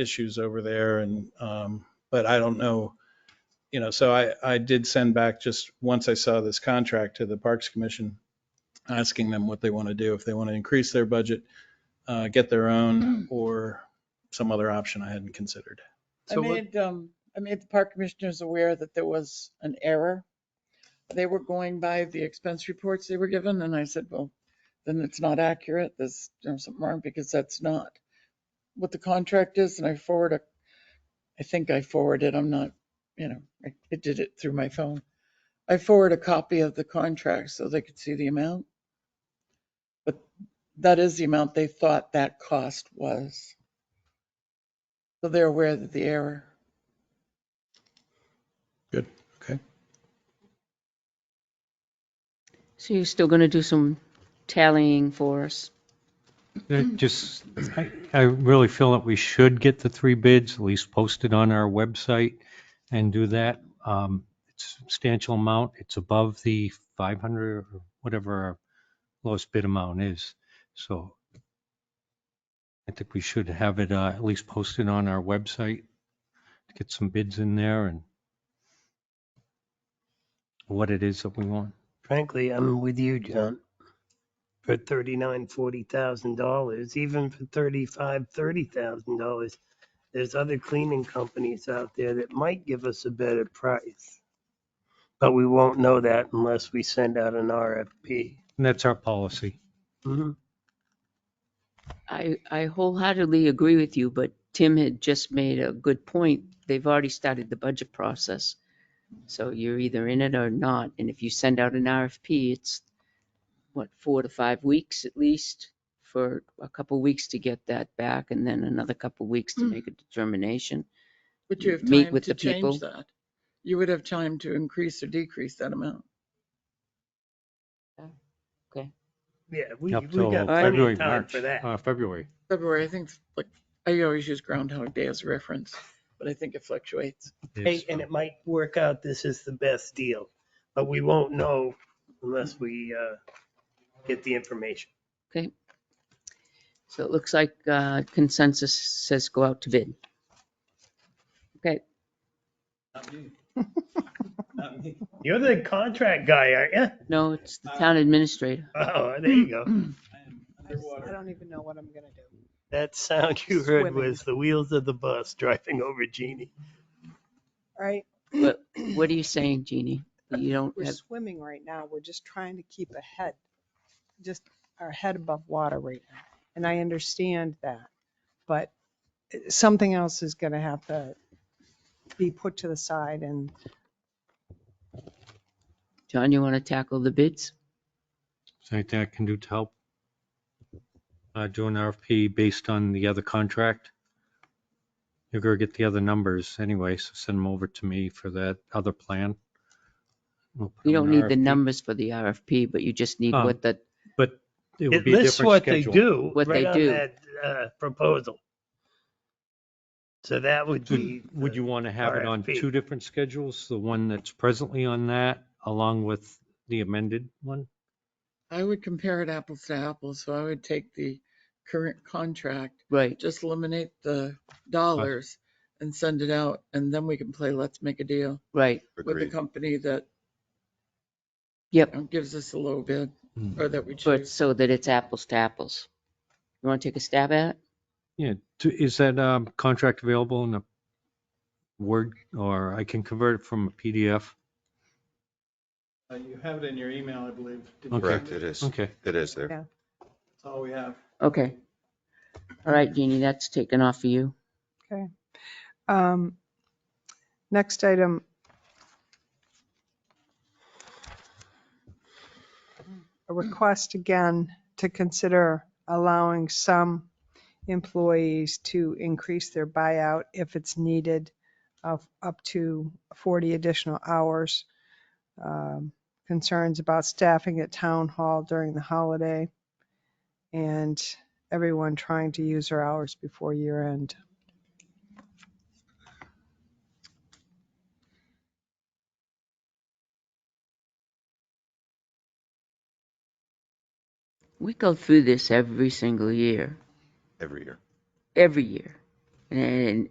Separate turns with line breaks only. issues over there and, um, but I don't know, you know, so I, I did send back just, once I saw this contract to the Parks Commission, asking them what they want to do, if they want to increase their budget, uh, get their own or some other option I hadn't considered.
I
So what-
made, um, I made the park commissioners aware that there was an error. They were going by the expense reports they were given, and I said, well, then it's not accurate, there's, there's something wrong, because that's not what the contract is, and I forward a, I think I forwarded, I'm not, you know, I I did it through my phone. I forward a copy of the contract so they could see the amount. But that is the amount they thought that cost was. So they're aware that the error.
So you're still going to do some tallying for us?
I
Mm.
Just, I, I really feel that we should get the three bids, at least post it on our website and do that. Um, It's a substantial amount. It's above the 500 or whatever our lowest bid amount is. So I think we should have it uh, at least posted on our website, to get some bids in there and what it is that we want.
Frankly, I'm with you, John. For thirty-nine, forty thousand dollars, even for thirty-five, thirty thousand dollars, there's other cleaning companies out there that might give us a better price. But we won't know that unless we send out an RFP.
And that's our policy.
I, I wholeheartedly agree with you, but Tim had just made a good point. They've already started the budget process. So you're either in it or not. And if you send out an RFP, it's what, four to five weeks at least for a couple weeks to get that back and then another couple weeks to make a determination.
Would you have
Meet
time
with
to
the people.
change that? You would have time to increase or decrease that amount.
Yeah, we,
Up
we
till
got plenty
February,
of time
March,
for that.
uh, February.
February, I think, like, I always use Groundhog Day as a reference, but I think it fluctuates.
Yes,
Hey, and it might work out this is the best deal, but we won't know unless we, uh, get the information.
So it looks like uh, consensus says go out to bid. Okay,
You're the contract guy, aren't you?
no, it's the town administrator.
Oh, there you go.
I just- I don't even know what I'm gonna do.
That sound you heard
Swimming.
was the wheels of the bus driving over Jeannie.
All right,
But what are you saying, Jeannie? You don't
we're
have,
swimming right now. We're just trying to keep ahead, just our head above water right now. And I understand that, but eh, something else is gonna have to be put to the side and
John, you want to tackle the bids?
Is there anything I can do to help? Uh, do an RFP based on the other contract? You're gonna get the other numbers anyway, so send them over to me for that other plan. We'll put
You
them
don't
in
need the
RFP,
numbers for the RFP, but you just need
Um,
what the,
But it would
It
be a
lists
different
what they
schedule.
do
What
right
they
on
do.
that uh, proposal. So that would be.
Would
the-
you want to have it on
RFP.
two different schedules? The one that's presently on that along with the amended one?
I would compare it apples to apples, so I would take the current contract,
right,
just eliminate the dollars and send it out, and then we can play let's make a deal
right.
with the
Agreed.
company that
Yep.
you know, gives us a low bid,
Hmm.
or that we
But
choose.
so that it's apples to apples. You want to take a stab at it?
Yeah, do- is that um, contract available in a Word or I can convert it from a PDF?
Uh, You have it in your email, I believe.
you Okay.
Correct, it is.
Okay.
It is there.
That's all we have.
Okay. All right, Jeannie, that's taken off of you.
Um, Next item. A request again to consider allowing some employees to increase their buyout if it's needed of up to 40 additional hours. Um, Concerns about staffing at town hall during the holiday and everyone trying to use their hours before year end.
We go through this every single year,
Every year.
every year. And,